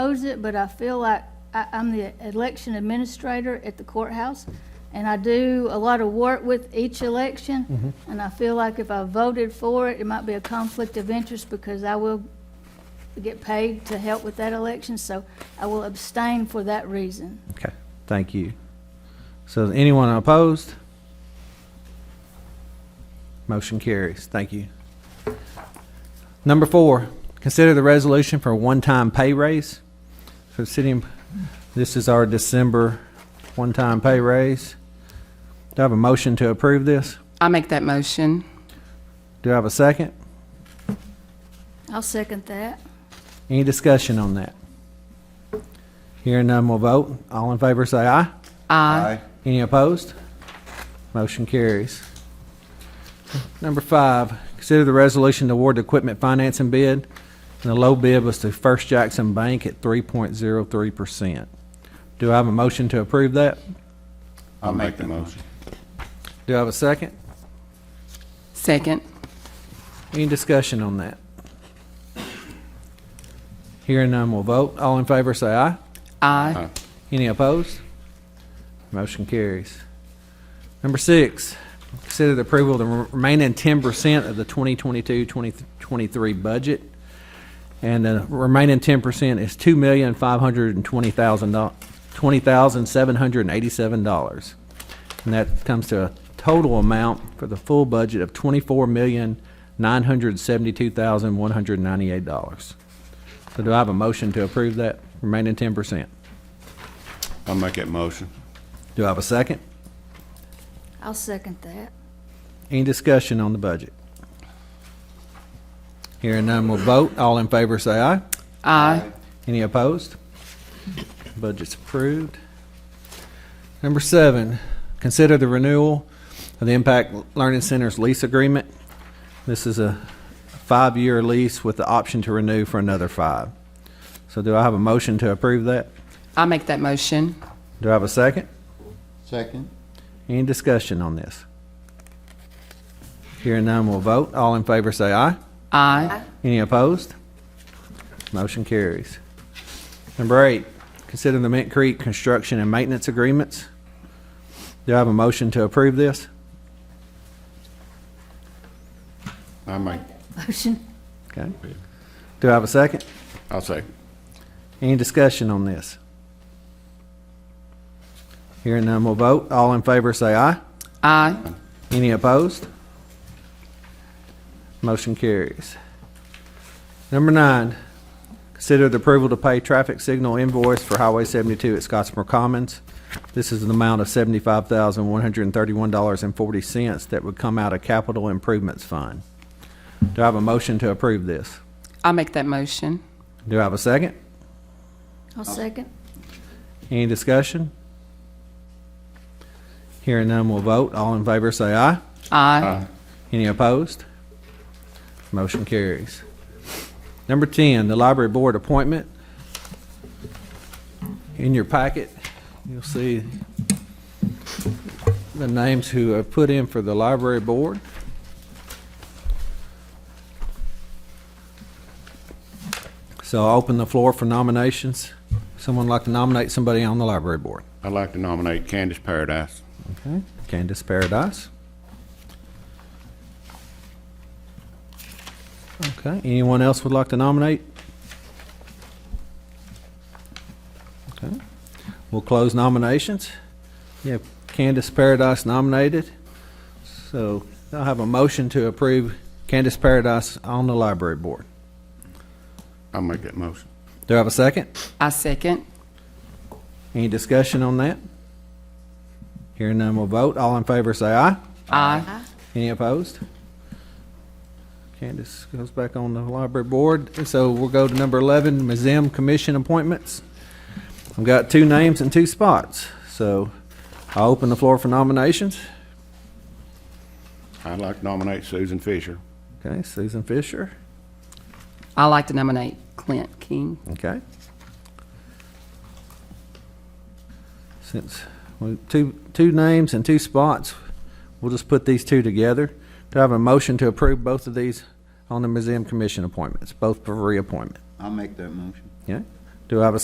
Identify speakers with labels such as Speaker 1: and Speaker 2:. Speaker 1: knows it, but I feel like I, I'm the election administrator at the courthouse, and I do a lot of work with each election, and I feel like if I voted for it, it might be a conflict of interest because I will get paid to help with that election, so I will abstain for that reason.
Speaker 2: Okay, thank you. So is anyone opposed? Motion carries. Thank you. Number four, consider the resolution for a one-time pay raise for city. em- This is our December one-time pay raise. Do I have a motion to approve this?
Speaker 3: I make that motion.
Speaker 2: Do I have a second?
Speaker 1: I'll second that.
Speaker 2: Any discussion on that? Hearing none, we'll vote. All in favor, say aye.
Speaker 3: Aye.
Speaker 2: Any opposed? Motion carries. Number five, consider the resolution to award the equipment financing bid. And the low bid was to First Jackson Bank at 3.03%. Do I have a motion to approve that?
Speaker 4: I'll make the motion.
Speaker 2: Do I have a second?
Speaker 3: Second.
Speaker 2: Any discussion on that? Hearing none, we'll vote. All in favor, say aye.
Speaker 3: Aye.
Speaker 4: Aye.
Speaker 2: Any opposed? Motion carries. Number six, consider the approval of the remaining ten percent of the 2022-2023 budget. And the remaining ten percent is two million, five hundred and twenty thousand dollars, twenty thousand, seven hundred and eighty-seven dollars. And that comes to a total amount for the full budget of twenty-four million, nine hundred and seventy-two thousand, one hundred and ninety-eight dollars. So do I have a motion to approve that remaining ten percent?
Speaker 4: I'll make that motion.
Speaker 2: Do I have a second?
Speaker 1: I'll second that.
Speaker 2: Any discussion on the budget? Hearing none, we'll vote. All in favor, say aye.
Speaker 3: Aye.
Speaker 2: Any opposed? Budget's approved. Number seven, consider the renewal of the Impact Learning Center's lease agreement. This is a five-year lease with the option to renew for another five. So do I have a motion to approve that?
Speaker 3: I make that motion.
Speaker 2: Do I have a second?
Speaker 4: Second.
Speaker 2: Any discussion on this? Hearing none, we'll vote. All in favor, say aye.
Speaker 3: Aye.
Speaker 2: Any opposed? Motion carries. Number eight, consider the Mint Creek construction and maintenance agreements. Do I have a motion to approve this?
Speaker 4: I'll make,
Speaker 1: Motion.
Speaker 2: Okay. Do I have a second?
Speaker 4: I'll say,
Speaker 2: Any discussion on this? Hearing none, we'll vote. All in favor, say aye.
Speaker 3: Aye.
Speaker 2: Any opposed? Motion carries. Number nine, consider the approval to pay traffic signal invoice for Highway 72 at Scottsmore Commons. This is an amount of $75,131.40 that would come out of Capital Improvements Fund. Do I have a motion to approve this?
Speaker 3: I make that motion.
Speaker 2: Do I have a second?
Speaker 1: I'll second.
Speaker 2: Any discussion? Hearing none, we'll vote. All in favor, say aye.
Speaker 3: Aye.
Speaker 4: aye,
Speaker 2: Any opposed? Motion carries. Number 10, the library board appointment. In your packet, you'll see the names who have put in for the library board. So I'll open the floor for nominations. Someone like to nominate somebody on the library board?
Speaker 4: I'd like to nominate Candace Paradise.
Speaker 2: Okay, Candace Paradise. Okay, anyone else would like to nominate? Okay, we'll close nominations. You have Candace Paradise nominated. So I'll have a motion to approve Candace Paradise on the library board.
Speaker 4: I'll make that motion.
Speaker 2: Do I have a second?
Speaker 3: I second.
Speaker 2: Any discussion on that? Hearing none, we'll vote. All in favor, say aye.
Speaker 3: Aye.
Speaker 2: Any opposed? Candace goes back on the library board. And So we'll go to number 11, Museum Commission appointments. I've got two names and two spots, so I'll open the floor for nominations.
Speaker 4: I'd like to nominate Susan Fisher.
Speaker 2: Okay, Susan Fisher,
Speaker 3: I like to nominate Clint King.
Speaker 2: okay. Since, we two, two names and two spots, we'll just put these two together. Do I have a motion to approve both of these on the Museum Commission appointments, both for reappointment?
Speaker 5: I'll make that motion.
Speaker 2: Yeah? Do I have a